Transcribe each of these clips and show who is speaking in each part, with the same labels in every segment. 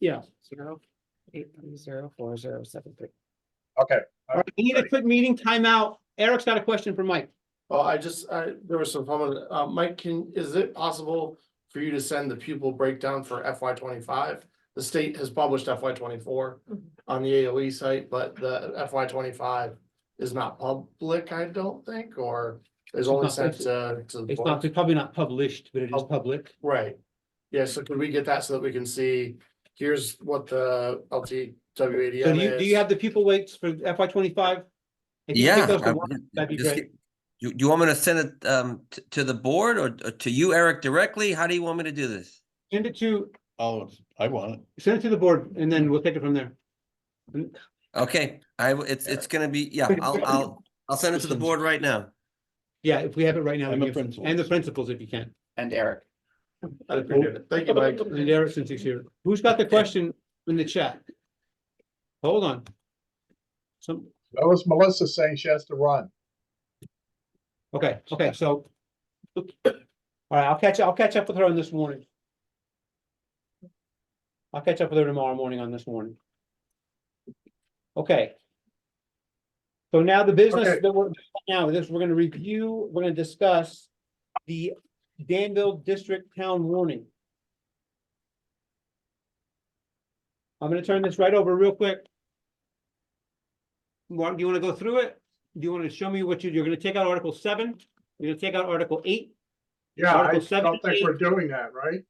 Speaker 1: Yeah. Zero, eight, three, zero, four, zero, seven, three.
Speaker 2: Okay,
Speaker 1: All right, we need a quick meeting timeout. Eric's got a question for Mike.
Speaker 3: Well, I just, I, there was some comment, uh, Mike, can, is it possible for you to send the pupil breakdown for FY twenty-five? The state has published FY twenty-four
Speaker 4: Mhm.
Speaker 3: on the AOE site, but the FY twenty-five is not public, I don't think, or is only
Speaker 1: not
Speaker 3: sent to, to the
Speaker 1: It's not,
Speaker 3: board. Oh,
Speaker 1: it's probably not published, but it is public.
Speaker 3: Right, yeah, so could we get that so that we can see, here's what the
Speaker 1: So do you,
Speaker 3: LTWADM
Speaker 1: do you
Speaker 3: is?
Speaker 1: have the pupil weights for FY twenty-five?
Speaker 5: Yeah. I-
Speaker 1: that'd be
Speaker 5: just
Speaker 1: great.
Speaker 5: get- You, you want me to send it, um, to, to the board or, or to you, Eric, directly? How do you want me to do this?
Speaker 1: Send it to,
Speaker 2: oh, I want it.
Speaker 1: send it to the board and then we'll take it from there.
Speaker 5: Okay, I, w- it's, it's gonna be, yeah, I'll, I'll, I'll send it to the
Speaker 2: Systems.
Speaker 5: board right now.
Speaker 1: Yeah, if we have it right now.
Speaker 2: And
Speaker 1: we
Speaker 2: the
Speaker 1: can-
Speaker 2: principals.
Speaker 1: And the principals, if you can.
Speaker 6: and Eric.
Speaker 3: I'd appreciate it. Thank you, Mike.
Speaker 1: And Eric, since he's here, who's got the question in the chat? Hold on. Some,
Speaker 2: That was Melissa saying she has to run.
Speaker 1: Okay, okay, so. All right, I'll catch, I'll catch up with her on this morning. I'll catch up with her tomorrow morning on this morning. Okay. So now the business
Speaker 2: Okay.
Speaker 1: that we're, now this, we're gonna review, we're gonna discuss the Danville District Town Warning. I'm gonna turn this right over real quick. Mark, do you wanna go through it? Do you want to show me what you, you're gonna take out Article seven, you're gonna take out Article eight?
Speaker 2: Yeah, I
Speaker 1: Article seven
Speaker 2: don't
Speaker 1: and
Speaker 2: think we're doing that, right?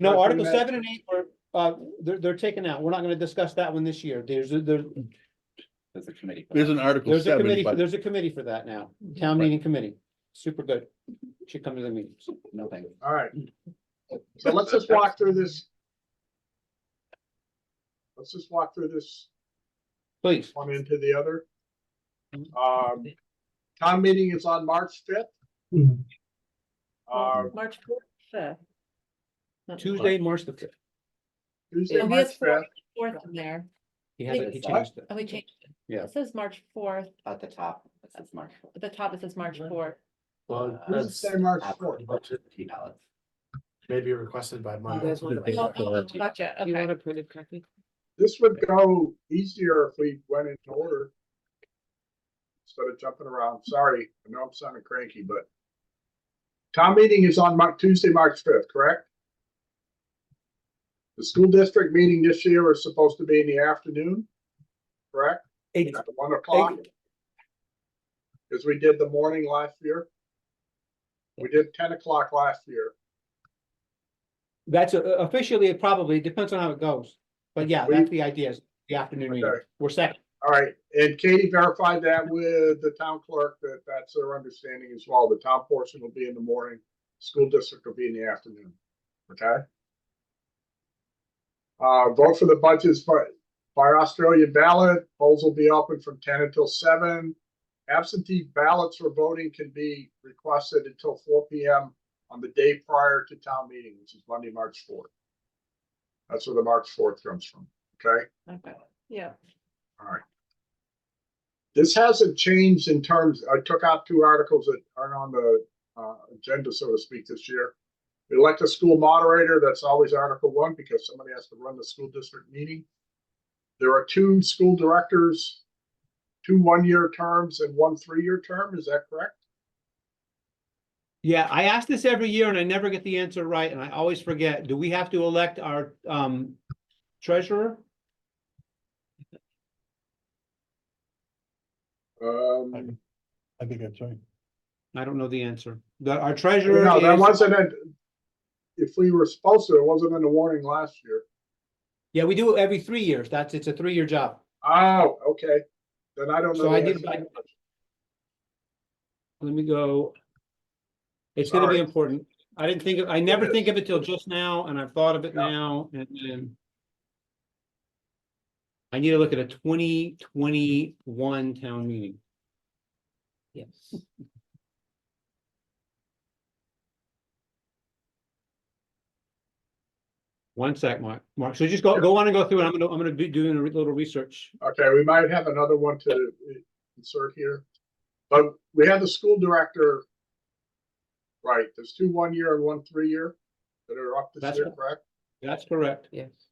Speaker 1: No,
Speaker 2: Nothing
Speaker 1: Article
Speaker 2: that-
Speaker 1: seven and eight are, uh, they're, they're taken out. We're not gonna discuss that one this year. There's, a- there,
Speaker 6: There's a committee.
Speaker 2: There's an article
Speaker 1: there's a
Speaker 2: seven,
Speaker 1: committee, for-
Speaker 2: but
Speaker 1: there's a committee for that now. Town meeting committee. Super good. Should come to the meetings.
Speaker 6: No, thank you.
Speaker 2: all right. So let's just walk through this. Let's just walk through this
Speaker 1: Please,
Speaker 2: one into the other. Um, town meeting is on March fifth.
Speaker 1: Mhm.
Speaker 2: Uh,
Speaker 4: March fourth,
Speaker 1: Tuesday, March the fifth.
Speaker 2: Tuesday,
Speaker 4: And we
Speaker 2: March
Speaker 4: have four-
Speaker 2: fifth,
Speaker 4: fourth in there,
Speaker 1: He hasn't, he
Speaker 4: Wait,
Speaker 1: changed it.
Speaker 4: and we changed it.
Speaker 1: Yeah.
Speaker 4: It says March fourth,
Speaker 6: At the top, it says Marshall.
Speaker 4: at the top it says March
Speaker 3: Mhm.
Speaker 4: fourth.
Speaker 3: Well, that's
Speaker 2: Tuesday, March fourth.
Speaker 6: Absentee ballots.
Speaker 3: maybe requested by Mike.
Speaker 4: Oh, oh, Gotcha, okay.
Speaker 7: a printed copy?
Speaker 2: This would go easier if we went into order. Instead of jumping around, sorry, I know I'm sounding cranky, but. Town meeting is on Mar- Tuesday, March fifth, correct? The school district meeting this year is supposed to be in the afternoon, correct?
Speaker 1: Eight,
Speaker 2: At one o'clock? Because we did the morning last year. We did ten o'clock last year.
Speaker 1: that's a- officially, it probably, depends on how it goes. But yeah,
Speaker 2: We-
Speaker 1: that's the idea, is the afternoon meeting.
Speaker 2: Okay.
Speaker 1: We're second.
Speaker 2: All right, and Katie verified that with the town clerk, that that's their understanding as well. The town portion will be in the morning, school district will be in the afternoon, okay? Uh, vote for the budgets by, by Australian ballot, polls will be open from ten until seven. Absentee ballots for voting can be requested until four P M on the day prior to town meeting, which is Monday, March fourth. That's where the March fourth comes from, okay?
Speaker 4: Okay. Yeah.
Speaker 2: This hasn't changed in terms, I took out two articles that aren't on the uh agenda, so to speak, this year. Elect a school moderator, that's always Article One, because somebody has to run the school district meeting. There are two school directors, two one-year terms and one three-year term, is that correct?
Speaker 1: Yeah, I ask this every year and I never get the answer right and I always forget. Do we have to elect our um treasurer?
Speaker 2: Um,
Speaker 8: I think that's right.
Speaker 1: I don't know the answer. The, our treasurer
Speaker 2: no, that
Speaker 1: is,
Speaker 2: wasn't it. If we were supposed to, it wasn't in the warning last year.
Speaker 1: yeah, we do it every three years. That's, it's a three-year job.
Speaker 2: Oh, okay. Then I don't know.
Speaker 1: So I
Speaker 2: the
Speaker 1: did,
Speaker 2: answer.
Speaker 1: I- let me go. It's gonna be
Speaker 2: Sorry.
Speaker 1: important. I didn't think, of I never
Speaker 2: is.
Speaker 1: think of it till just now and I've thought of it
Speaker 2: Yeah.
Speaker 1: now and then. I need to look at a twenty twenty-one town meeting.
Speaker 7: Yes.
Speaker 1: One sec, Mark. Mark, so just go, go on and go through and I'm gonna, I'm gonna be doing a re- little research.
Speaker 2: Okay, we might have another one to insert here. But we have the school director. Right, there's two one year and one three year that are up this
Speaker 1: That's
Speaker 2: year,
Speaker 1: right.
Speaker 2: correct?
Speaker 1: That's correct.
Speaker 7: Yes.